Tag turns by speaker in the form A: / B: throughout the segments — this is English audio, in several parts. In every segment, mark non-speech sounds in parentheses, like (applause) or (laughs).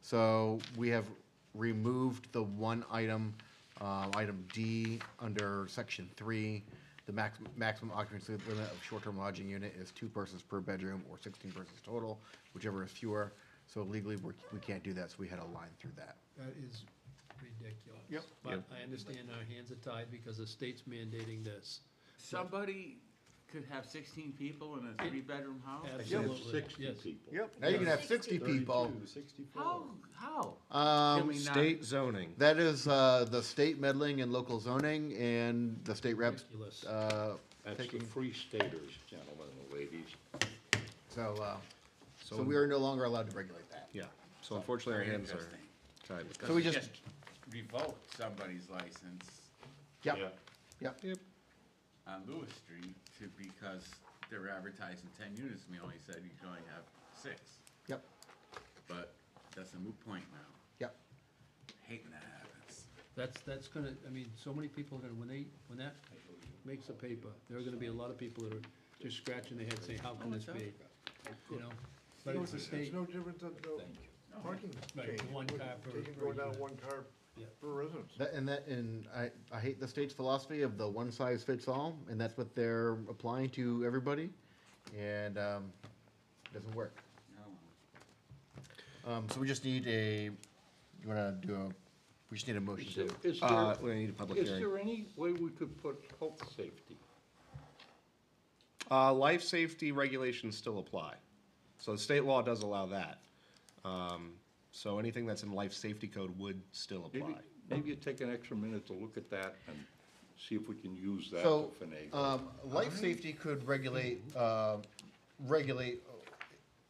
A: So we have removed the one item, uh, item D, under section three. The max, maximum occupancy limit of short-term lodging unit is two persons per bedroom or sixteen persons total, whichever is fewer. So legally, we're, we can't do that, so we had a line through that.
B: That is ridiculous.
C: Yep.
B: But I understand our hands are tied because the state's mandating this.
D: Somebody could have sixteen people in a three-bedroom house?
B: Absolutely, yes.
C: Yep.
A: Now you can have sixty people.
D: How, how? Can
A: Um,
D: we not-
C: State zoning.
A: that is, uh, the state meddling in local zoning and the state reps,
B: Ridiculous.
A: uh,
E: That's the
A: taking,
E: free staters, gentlemen and ladies.
A: so, uh, so we are no longer allowed to regulate that.
C: Yeah, so unfortunately, our hands are tied with that.
A: So we just,
D: Revoke somebody's license
A: yeah, yeah.
C: Yep.
D: on Lewis Street to, because they're advertising ten units, and we only said you can only have six.
A: Yep,
D: But that's a moot point now.
A: yep.
D: Hating that happens.
B: That's, that's gonna, I mean, so many people are gonna, when they, when that makes the paper, there are gonna be a lot of people that are just scratching their head saying, how can this be? You know? But it's the
F: It's
B: state,
F: no different than the parking
B: Right,
F: change.
B: one car per-
F: Taking- Going down one car
B: Yeah.
F: per residence.
A: That, and that, and I, I hate the state's philosophy of the one size fits all, and that's what they're applying to everybody, and, um, it doesn't work.
D: No.
A: Um, so we just need a, you wanna do a, we just need a motion
E: Is
A: to,
E: there, is
C: Uh,
E: there-
C: we need a public
E: is
C: hearing.
E: there any way we could put health safety?
C: Uh, life safety regulations still apply. So state law does allow that. Um, so anything that's in life safety code would still
E: Maybe,
C: apply.
E: maybe you take an extra minute to look at that and see if we can use that to
A: so,
E: finagle.
A: um, life safety could regulate, uh, regulate,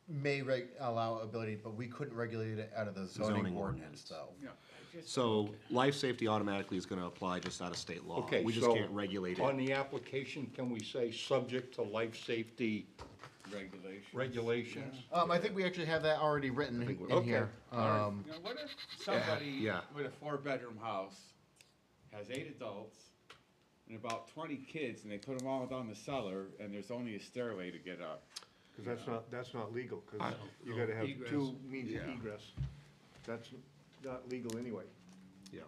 A: may reg, allow ability, but we couldn't regulate it out of the zoning
C: Zoning
A: ordinance, though.
C: So life safety automatically is gonna apply just out of state law.
E: Okay,
C: We just
E: so
C: can't regulate
E: On
C: it.
E: the application, can we say, subject to life safety
D: Regulation.
E: regulations?
A: Um, I think we actually have that already written in
E: okay,
A: here. Um,
D: You know, what if somebody
C: yeah.
D: with a four-bedroom house has eight adults and about twenty kids, and they put them all down the cellar, and there's only a stairway to get up?
F: Because that's not, that's not legal, because
B: No,
F: you
B: no,
F: gotta have
B: egress.
F: two means of
E: Yeah.
F: egress. That's not legal anyway.
C: Yeah.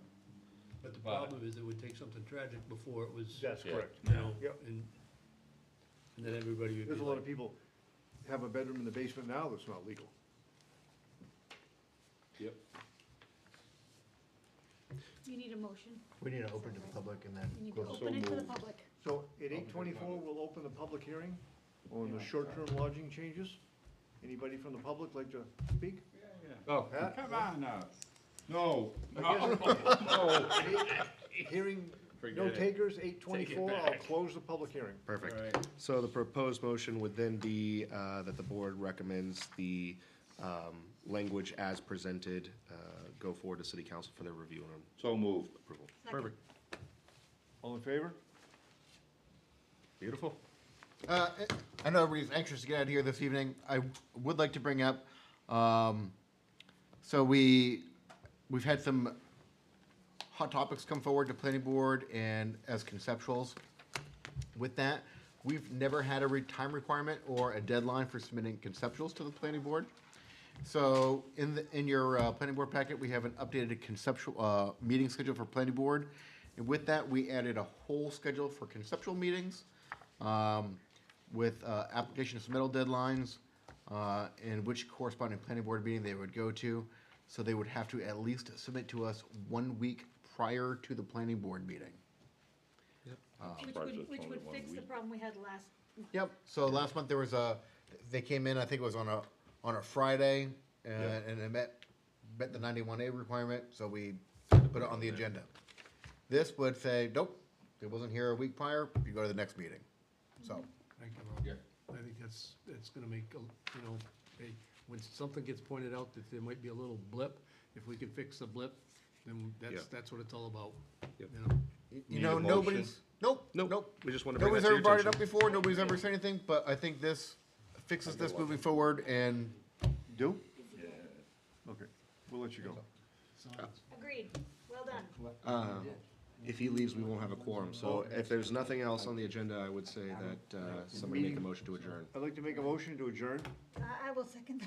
B: but the problem is it would take something tragic before it was, you
F: That's correct.
B: know,
F: Yep.
B: and, and then everybody would be
F: There's a lot of
B: like,
F: people have a bedroom in the basement now that's not legal.
E: Yep.
G: You need a motion.
A: we need to open to the public and then.
G: You need
A: go
G: to
A: to-
G: open it to the public.
F: So at eight twenty-four, we'll open the public hearing on the short-term lodging changes. Anybody from the public like to
A: (laughs)
F: speak?
D: Oh,
F: Huh?
D: come on now. No, (laughs)
F: Hearing,
D: Forget
F: no
D: it.
F: takers, eight twenty-four, I'll
D: back.
F: close the public hearing.
C: Perfect. So the proposed motion would then be uh, that the board recommends the um, language as presented uh, go forward to city council for their review and
E: So moved.
C: approval.
G: Second.
C: Perfect.
F: All in favor?
C: Beautiful.
A: Uh, I know everybody's anxious to get out of here this evening. I would like to bring up, um, so we, we've had some hot topics come forward to planning board and as conceptuals. With that, we've never had a re- time requirement or a deadline for submitting conceptuals to the planning board. So in the, in your uh, planning board packet, we have an updated conceptual, uh, meeting schedule for planning board. And with that, we added a whole schedule for conceptual meetings um, with uh, application submittal deadlines uh, and which corresponding planning board meeting they would go to. So they would have to at least submit to us one week prior to the planning board meeting.
G: Which
E: Surprised it's
G: would, which
E: only
G: would
E: one
G: fix the
E: week.
G: problem we had last,
A: Yep, so last month there was a, they came in, I think it was on a, on a Friday, and, and it met, met the ninety-one A requirement, so we put it on the agenda. This would say, nope, it wasn't here a week prior, you go to the next meeting, so.
B: I come out. I think that's, that's gonna make, a you know, hey, when something gets pointed out that there might be a little blip, if we can fix the blip, then that's,
C: Yeah.
B: that's what it's all about, you
C: Yep.
B: know?
A: You
E: Need
A: know,
E: a motion?
A: nobody's, nope,
C: Nope,
A: nope.
C: we just wanted to bring
A: Nobody's
C: that to
A: ever
C: your
A: brought it up
C: attention.
A: before, nobody's ever said anything, but I think this fixes this moving forward, and
F: Do? Yeah. Okay, we'll let you go.
G: agreed, well done.
A: Um,
C: If he leaves, we won't have a quorum. So if there's nothing else on the agenda, I would say that uh, somebody make a motion to adjourn.
F: I'd like to make a motion to adjourn.
G: Uh, I, I will second that.